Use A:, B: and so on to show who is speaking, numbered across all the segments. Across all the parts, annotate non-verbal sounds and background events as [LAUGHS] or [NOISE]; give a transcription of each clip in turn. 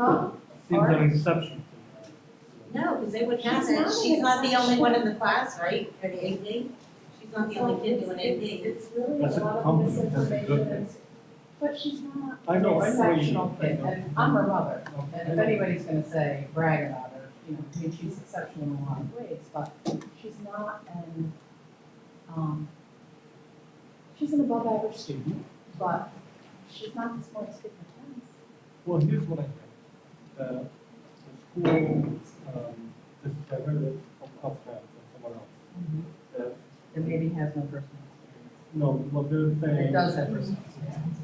A: Huh?
B: Seems like an exception.
A: No, because they would have
C: She's
A: it.
C: not
A: She's not the
C: an
A: only one in the class, right, for the AP? She's not the only kid doing
C: It's-
A: AP.
C: It's really a
B: That's a
C: lot of
B: compliment, that's a good
C: misinformation,
B: thing.
C: It's- but she's not.
B: I know, I know what you
D: exceptional
B: mean. I
D: kid,
B: know.
D: and I'm her mother, and if
B: Okay.
D: anybody's gonna say, brag about her, you know, I mean, she's exceptional in a lot of ways, but she's not an, um, she's an above average student, but she's not the smartest kid in the class.
B: Well, here's what I think. The, the school, um, this, I heard it from Uptown, from someone else. that,
D: Mm-hmm. It maybe has no personal
B: No, what they're saying.
D: It does have personal experience.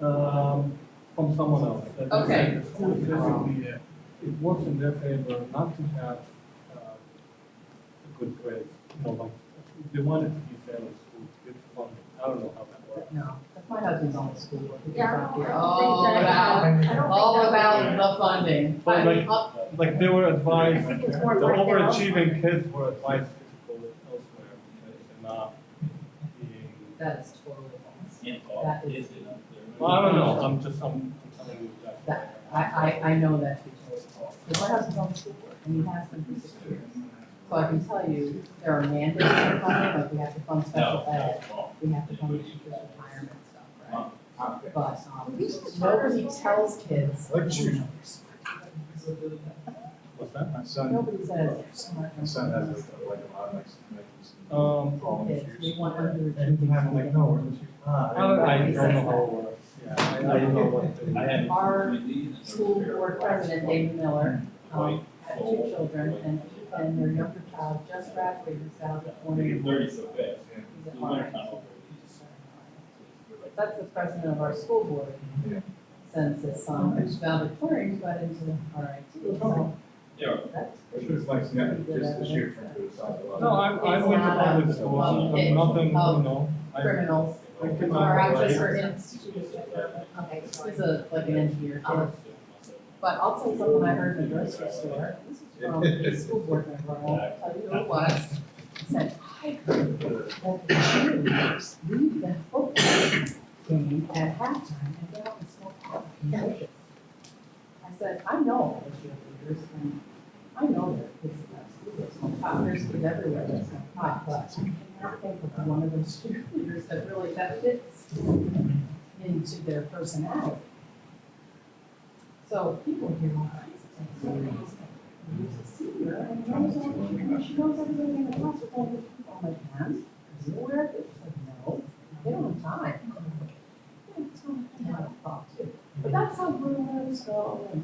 B: Um, from someone else. that Oh, they
D: Okay.
B: said The school basically, it works in their favor not to have, uh, a good grade, you know, like, they want it to be fair in school, good funding. I don't know how that works.
D: No, that's my husband's on the school, board. He
C: Yeah,
D: comes out here,
C: I don't think
D: all
C: that-
D: about,
C: I don't think
D: Oh, all
C: that-
D: about the funding.
B: But like-
D: Up-
B: Like, they were advised,
C: I
B: the
C: think it's more like they're
B: overachieving kids were advised to go elsewhere because they're not being.
D: That's totally false.
E: Yeah,
D: That
E: it
D: is-
E: is enough.
B: Well, I don't know, I'm just, I'm I'm telling you that.
D: That, I, I, I know that to be totally false. Because my husband's on the school board and he has been for six years. So I can tell you, there are mandates for funding, like we have to fund
E: No,
D: special
E: no,
D: ed,
E: well,
D: we have to fund teachers' retirement stuff,
E: uh,
D: right? But, um, nobody tells kids,
F: Like you.
B: What's that?
F: My son,
D: nobody says.
F: my son has a- like a lot of like, like,
B: Um,
F: problem
D: Kids, we
F: issues.
D: want under.
F: And he have like, no, we're gonna choose
B: I
F: not.
B: don't, I don't know how it works, yeah, I I don't know what to do.
E: I had.
D: Our School board president, David Miller, um, had two children and, and their younger child just graduated, he's out of
E: Making
D: corner.
E: thirty so fast.
F: Yeah.
D: He's
E: The
D: at
E: winter
D: Lawrence.
E: time over.
D: That's the president of our school board.
F: Yeah.
D: Since um, his son is valedictorian, got into RIT, so
E: Yeah,
D: that's.
F: Which was like, yeah, just this year from the side of the
B: No, I, I went to public school, I'm I'm nothing, you know, I,
D: Criminals
B: I came
D: are
B: out
D: actually
B: right.
D: for institutions. Okay, so he's a, like an engineer. Um, But I'll tell you something I heard in the grocery store, this is from a school board member, I'll tell you who it was. Said, I heard that the cheerleaders leave the football game at halftime and go out and smoke pot. I said, I know all the cheerleaders, and I know that kids in that school that smoke pot, there's kids everywhere that smoke pot, but I can't think of one of those cheerleaders that really, that fits into their personality. So people hear all kinds of things. Who's a senior, and she knows everything, and she knows everybody in the class with all these people. I'm like, ma'am, is it aware? It's like, no, they don't have time. Yeah, it's not, I have a thought too. But that's how rumors go, and,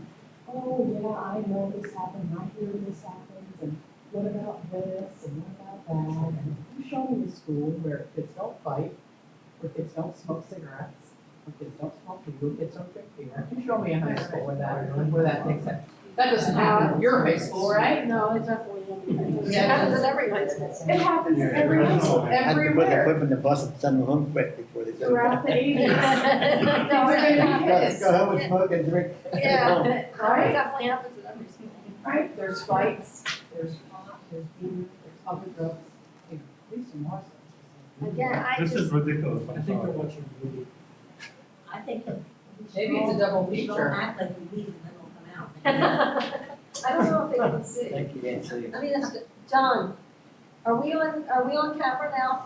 D: oh, yeah, I know this happened, I hear this happens, and what about this, and what about that? And you show me a school where kids don't fight, where kids don't smoke cigarettes, where kids don't smoke weed, where kids don't drink beer. You show me a high school where that, where that takes it. That doesn't happen, you're high school, right?
C: No, it definitely.
D: Yeah.
C: at every high school.
D: It happens every high school,
G: Had to put their
D: everywhere,
G: foot in the bus and send them home quick before they. go.
D: throughout the ages.
C: [LAUGHS]
D: Things
C: No,
D: are gonna be
G: Go
D: hits,
G: go home and smoke and drink.
C: Yeah, it
D: right?
C: definitely happens at every school.
D: Right, there's fights, there's pot, there's beer, there's other drugs, you know, at least in Marshall.
C: Again, I
B: This is
C: just,
B: ridiculous,
F: I
B: I'm
F: think
B: sorry.
F: they're watching really
A: I think that we should
D: Maybe it's a
A: all-
D: double
A: we should all
D: feature.
A: act like we leave and then we'll come out.
C: I don't know if they can see.
G: Thank you, Nancy.
C: [LAUGHS] I mean, that's- John, are we on, are we on camera now?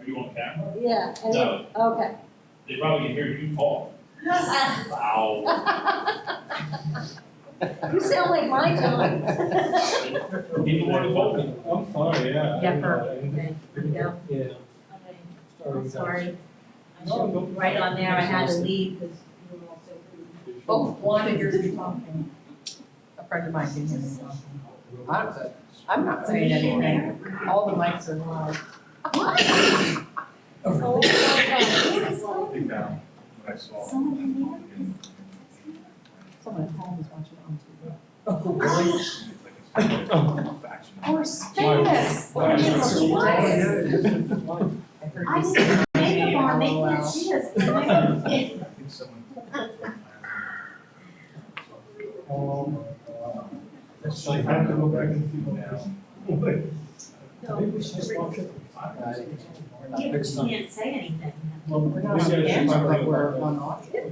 E: Are you on camera?
C: Yeah. and-
E: No,
C: Okay.
E: they probably can hear you talk.
D: [LAUGHS]
E: Wow.
C: You sound like my John.
E: People want to vote me.
B: I'm sorry, yeah.
A: Yeah,
B: for.
A: Okay, here we go.
B: Yeah.
A: Okay,
B: sorry,
A: I'm
B: guys.
A: sorry. I
B: No,
A: should,
B: don't-
A: right on there, I had to leave because you were all so rude.
C: Oh.
D: Both one of yours is talking. A friend of mine can hear me talking. I'm, I'm not saying anything, all the mics are loud.
C: Oh, my God.
F: I think that what I saw. [LAUGHS]
D: Someone at home is watching on TV.
F: Really?
C: Or Space.
B: Why-
C: Or
B: why-
C: Jesus Christ.
D: I heard
C: I
D: you
C: just
D: say
C: put
D: name
C: makeup on, they
D: all
C: can't
D: out.
C: see us. They
F: I think someone.
B: Oh,
F: Um,
B: my
F: uh,
B: God.
F: That's
B: Like, I have to go back and see what
F: now.
B: Maybe we should just watch it.
A: can't say anything.
B: Well,
D: We're
B: maybe
D: not
B: I
D: on
B: should
D: camera,
B: probably-
D: but we're on audio.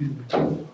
B: Excuse me.